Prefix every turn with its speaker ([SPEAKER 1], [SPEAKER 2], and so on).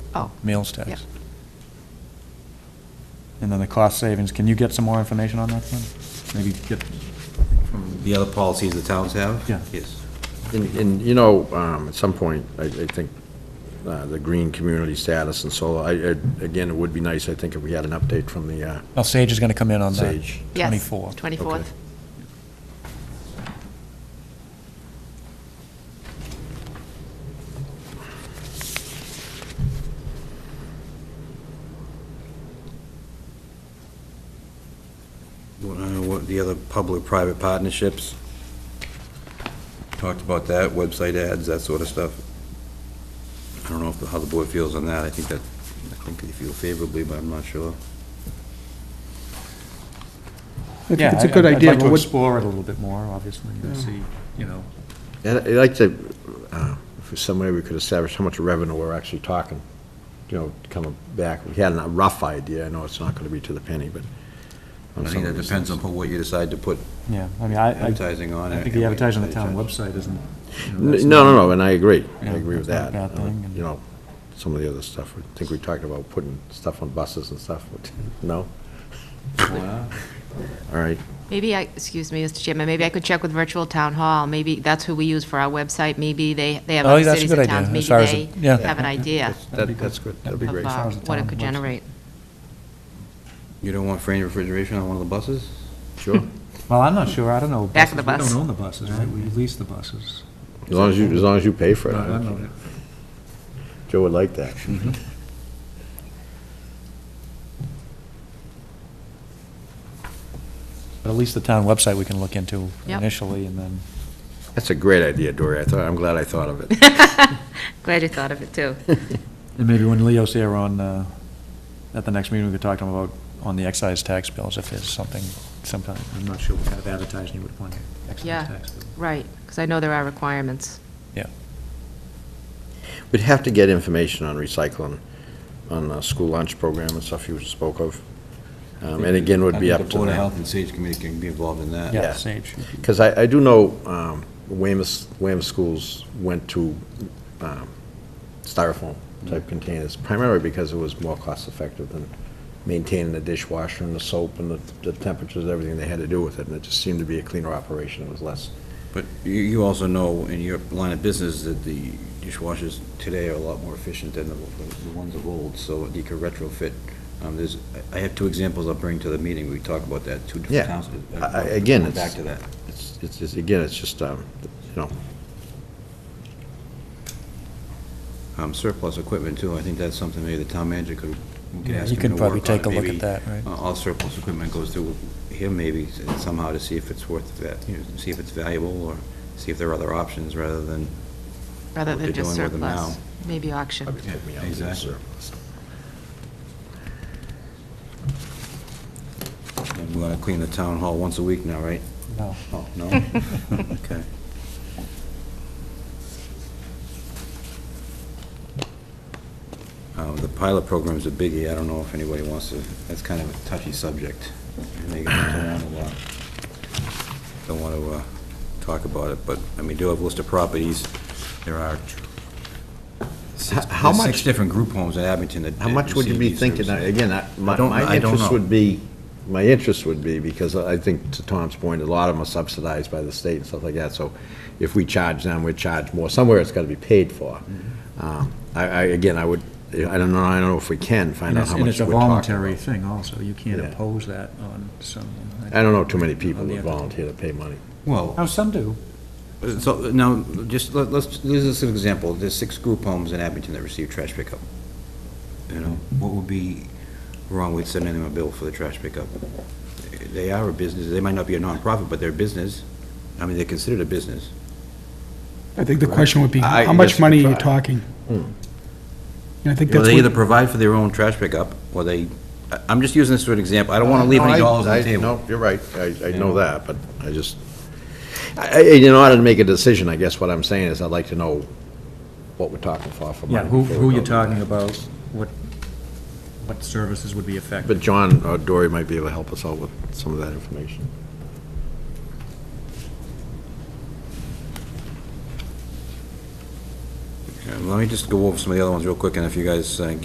[SPEAKER 1] Oh.
[SPEAKER 2] meals
[SPEAKER 1] Yeah.
[SPEAKER 2] tax. And then the cost savings, can you get some more information on that one? Maybe get,
[SPEAKER 3] The other policies the towns have?
[SPEAKER 2] Yeah.
[SPEAKER 3] Yes.
[SPEAKER 4] And, and, you know, um, at some point, I, I think, uh, the green community status and solar, I, I- again, it would be nice, I think, if we had an update from the, uh,
[SPEAKER 2] now Sage is going to come in on that.
[SPEAKER 4] Sage.
[SPEAKER 1] Yes,
[SPEAKER 2] 24.
[SPEAKER 1] 24th.
[SPEAKER 4] Okay.
[SPEAKER 3] What, uh, what- The other public-private partnerships? Talked about that, website ads, that sort of stuff. I don't know if- how the board feels on that. I think that, I think they feel favorably, but I'm not sure.
[SPEAKER 5] I think
[SPEAKER 2] Yeah,
[SPEAKER 5] it's a
[SPEAKER 2] I-
[SPEAKER 5] good
[SPEAKER 2] I'd-
[SPEAKER 5] idea,
[SPEAKER 2] I'd like
[SPEAKER 5] but
[SPEAKER 2] to
[SPEAKER 5] what,
[SPEAKER 2] explore it a little bit more, obviously, and see, you know.
[SPEAKER 4] And I'd like to, uh, if there's some way we could establish how much revenue we're actually talking, you know, coming back. We had a rough idea, I know it's not gonna be to the penny, but. on
[SPEAKER 3] I
[SPEAKER 4] some
[SPEAKER 3] think
[SPEAKER 4] of
[SPEAKER 3] that
[SPEAKER 4] these
[SPEAKER 3] depends on
[SPEAKER 4] things.
[SPEAKER 3] what you decide to put.
[SPEAKER 2] Yeah, I mean, I, I
[SPEAKER 3] Advertising on
[SPEAKER 2] I
[SPEAKER 3] it
[SPEAKER 2] think
[SPEAKER 3] and
[SPEAKER 2] the
[SPEAKER 3] we
[SPEAKER 2] advertising on the
[SPEAKER 3] pay
[SPEAKER 2] town
[SPEAKER 3] attention.
[SPEAKER 2] website isn't. you know, that's
[SPEAKER 4] N- No,
[SPEAKER 2] not-
[SPEAKER 4] no, no, and I agree, I
[SPEAKER 2] Yeah,
[SPEAKER 4] agree with
[SPEAKER 2] that's
[SPEAKER 4] that.
[SPEAKER 2] not a bad
[SPEAKER 4] Uh,
[SPEAKER 2] thing, and-
[SPEAKER 4] You know, some of the other stuff, I think we talked about putting stuff on buses and stuff, no? All right,
[SPEAKER 1] Maybe I, excuse me, Mr. Chairman, maybe I could check with Virtual Town Hall. Maybe that's who we use for our website. Maybe they, they have
[SPEAKER 2] Oh,
[SPEAKER 1] other
[SPEAKER 2] that's a
[SPEAKER 1] cities
[SPEAKER 2] good
[SPEAKER 1] and
[SPEAKER 2] idea,
[SPEAKER 1] towns.
[SPEAKER 2] as far as
[SPEAKER 1] Maybe
[SPEAKER 2] it-
[SPEAKER 1] they
[SPEAKER 2] yeah.
[SPEAKER 1] have an idea
[SPEAKER 4] That's-
[SPEAKER 2] That'd be
[SPEAKER 4] that- that's good, that'd be
[SPEAKER 2] Yep.
[SPEAKER 4] great.
[SPEAKER 1] of
[SPEAKER 2] As far
[SPEAKER 1] uh,
[SPEAKER 2] as the
[SPEAKER 1] what it
[SPEAKER 2] town
[SPEAKER 1] could
[SPEAKER 2] website.
[SPEAKER 1] generate.
[SPEAKER 3] You don't want frame refrigeration on one of the buses?
[SPEAKER 4] Sure,
[SPEAKER 2] Well, I'm not sure, I don't know.
[SPEAKER 1] Back of the
[SPEAKER 2] buses.
[SPEAKER 1] bus.
[SPEAKER 2] We don't own the buses, right? We lease the buses.
[SPEAKER 4] as long as you, as long as you pay for it.
[SPEAKER 2] No,
[SPEAKER 4] I
[SPEAKER 2] I
[SPEAKER 4] don't
[SPEAKER 2] don't know.
[SPEAKER 4] care. Joe would like that.
[SPEAKER 2] But at least the town website we can look into
[SPEAKER 1] Yep.
[SPEAKER 2] initially, and then,
[SPEAKER 4] That's a great idea, Dory, I thought, I'm glad I thought of it.
[SPEAKER 1] Glad you thought of it, too.
[SPEAKER 2] and maybe when Leo's here on, uh, at the next meeting, we could talk to him about, on the excise tax bills, if there's something, sometime. I'm not sure what kind of advertising you would want, excise
[SPEAKER 1] Yeah.
[SPEAKER 2] tax bill.
[SPEAKER 1] Right, because I know there are requirements.
[SPEAKER 2] Yeah.
[SPEAKER 4] We'd have to get information on recycling, on the school lunch program and stuff you spoke of. Um, And again, would be
[SPEAKER 3] I think
[SPEAKER 4] up
[SPEAKER 3] The
[SPEAKER 4] to
[SPEAKER 3] Board of
[SPEAKER 4] them.
[SPEAKER 3] Health and Sage Committee can be involved in that.
[SPEAKER 2] Yeah,
[SPEAKER 4] Yeah.
[SPEAKER 2] Sage.
[SPEAKER 4] Because I, I do know um, Weymouth, Weymouth schools went to um, styrofoam-type containers, primarily because it was more cost-effective than maintaining the dishwasher and the soap and the the temperatures, everything they had to do with it, and it just seemed to be a cleaner operation, it was less.
[SPEAKER 3] But you, you also know in your line of business that the dishwashers today are a lot more efficient than the, the ones of old, so you could retrofit. Um, there's, I have two examples I'll bring to the meeting, we talked about that, two
[SPEAKER 4] Yeah.
[SPEAKER 3] different towns.
[SPEAKER 4] I- I- again,
[SPEAKER 3] Going
[SPEAKER 4] it's-
[SPEAKER 3] Back to that.
[SPEAKER 4] It's, it's, just- again, it's just, um, you know,
[SPEAKER 3] Um, surplus equipment too, I think that's something maybe the town manager could, we could
[SPEAKER 2] Yeah,
[SPEAKER 3] ask
[SPEAKER 2] he
[SPEAKER 3] him
[SPEAKER 2] could
[SPEAKER 3] to
[SPEAKER 2] probably
[SPEAKER 3] work on
[SPEAKER 2] take a
[SPEAKER 3] it.
[SPEAKER 2] look
[SPEAKER 3] Maybe,
[SPEAKER 2] at that, right?
[SPEAKER 3] uh, All surplus equipment goes through him maybe somehow to see if it's worth that, you know, see if it's valuable or see if there are other options rather than
[SPEAKER 1] Rather than
[SPEAKER 3] What they're
[SPEAKER 1] just
[SPEAKER 3] doing with them
[SPEAKER 1] surplus,
[SPEAKER 3] now.
[SPEAKER 1] maybe auction.
[SPEAKER 4] probably take me out. of the
[SPEAKER 3] Exactly.
[SPEAKER 4] surplus.
[SPEAKER 3] And we're gonna clean the town hall once a week now, right?
[SPEAKER 2] No.
[SPEAKER 3] Oh, no? Okay. Uh, The pilot program's a biggie, I don't know if anybody wants to, that's kind of a touchy subject. And They get around a lot. uh, Don't want to uh, talk about it, but, I mean, do have a list of properties, there are six,
[SPEAKER 4] How
[SPEAKER 3] there's six
[SPEAKER 4] much-
[SPEAKER 3] different group homes in Abington that
[SPEAKER 4] How much would you
[SPEAKER 3] receive
[SPEAKER 4] be
[SPEAKER 3] these
[SPEAKER 4] thinking,
[SPEAKER 3] services.
[SPEAKER 4] again, I- my,
[SPEAKER 3] I don't-
[SPEAKER 4] my
[SPEAKER 3] I don't
[SPEAKER 4] interest
[SPEAKER 3] know.
[SPEAKER 4] would be, my interest would be, because I think, to Tom's point, a lot of them are subsidized by the state and stuff like that, so if we charge them, we charge more, somewhere it's gotta be paid for. Um, I, I, again, I would, I don't know, I don't know if we can find
[SPEAKER 2] And
[SPEAKER 4] out
[SPEAKER 2] it's,
[SPEAKER 4] how
[SPEAKER 2] and
[SPEAKER 4] much
[SPEAKER 2] it's a
[SPEAKER 4] we're talking
[SPEAKER 2] voluntary
[SPEAKER 4] about.
[SPEAKER 2] thing also, you can't
[SPEAKER 4] Yeah.
[SPEAKER 2] impose that on someone.
[SPEAKER 4] I don't know too many people
[SPEAKER 2] On the
[SPEAKER 4] that
[SPEAKER 2] other-
[SPEAKER 4] volunteer to pay money.
[SPEAKER 3] Well,
[SPEAKER 2] Oh, some do.
[SPEAKER 3] So now, just, let- let's, this is an example, there's six group homes in Abington that receive trash pickup. You know, what would be wrong with sending them a bill for the trash pickup? They are a business, they might not be a nonprofit, but they're a business. I mean, they're considered a business.
[SPEAKER 5] I think the question would be,
[SPEAKER 4] I-
[SPEAKER 5] how
[SPEAKER 4] yes,
[SPEAKER 5] much
[SPEAKER 4] we
[SPEAKER 5] money are
[SPEAKER 4] try.
[SPEAKER 5] you
[SPEAKER 4] Hmm.
[SPEAKER 5] talking? And I think
[SPEAKER 3] Well,
[SPEAKER 5] that's
[SPEAKER 3] they either
[SPEAKER 5] what,
[SPEAKER 3] provide for their own trash pickup, or they, I- I'm just using this for an example, I don't want to leave any dollars on the table.
[SPEAKER 4] No, you're right, I, I know that, but I just, I, I- in order to make a decision, I guess what I'm saying is I'd like to know what we're talking for, for money.
[SPEAKER 2] Yeah, who,
[SPEAKER 4] before we
[SPEAKER 2] who
[SPEAKER 4] go
[SPEAKER 2] you're
[SPEAKER 4] to that.
[SPEAKER 2] talking about, what, what services would be affected.
[SPEAKER 4] But John or Dory might be able to help us out with some of that information.
[SPEAKER 3] Uh, Let me just go over some of the other ones real quick, and if you guys uh,